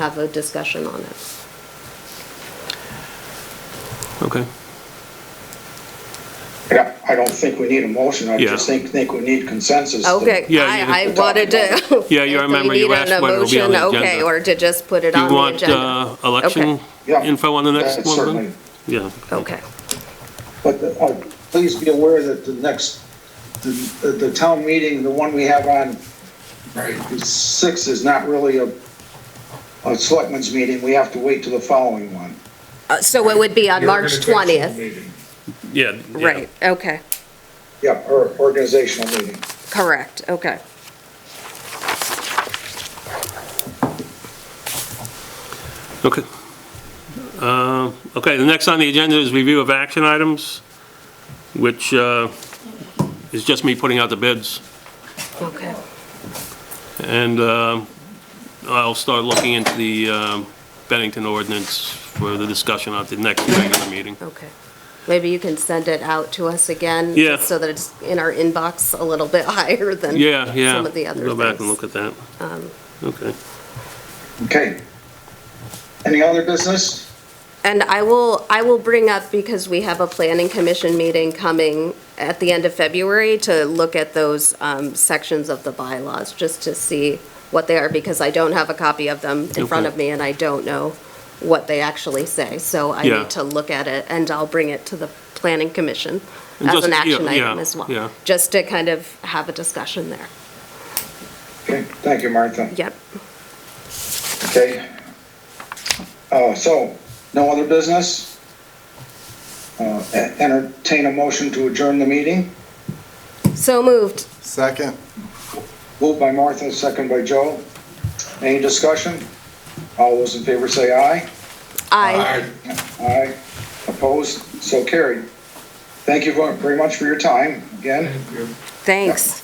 have a discussion on it. Okay. I don't- I don't think we need a motion, I just Yeah. think, think we need consensus. to- Okay, Yeah, I, I you- wanted to. Yeah, you if we remember you need asked an whether it'll be on emotion, the Okay, agenda. or to just put it Do on you the want agenda. uh, election Okay. Yeah. info on the next That's one? Certainly, then? Yeah. Okay, but uh, please be aware that the next, the, the town meeting, the one we have on the sixth is not really a, a selectmen's meeting, we have to wait till the following one. Uh, so it would be on March Organizational 20th, meeting. Yeah. yeah. right, okay, Yeah, or organizational meeting. correct, okay. Okay. Uh, Okay, the next on the agenda is review of action items, which uh, is just me putting out the bids. Okay. And um, I'll start looking into the um, Bennington ordinance for the discussion at the next regular meeting. Okay. Maybe you can send it out to us again? Yeah. So that it's in our inbox a little bit higher than Yeah, yeah. some of the other Go back and things. Um, look at that. Okay. Okay. Any other business? And I will, I will bring up, because we have a planning commission meeting coming at the end of February to look at those um, sections of the bylaws, just to see what they are, because I don't have a copy of them in front Okay. of me, and I don't know what they actually say. So I Yeah. need to look at it, and I'll bring it to the planning commission And as just- an yeah, action item yeah, as well. yeah. Just to kind of have a discussion there. Okay, thank you, Martha. Yep. Okay. Uh, so, no other business? Uh, e- entertain a motion to adjourn the meeting, So moved. Second. moved by Martha, second by Joe. Any discussion? All those in favor say aye. Aye. Aye. Opposed? So carried. Thank you very much for your time, again. Thanks.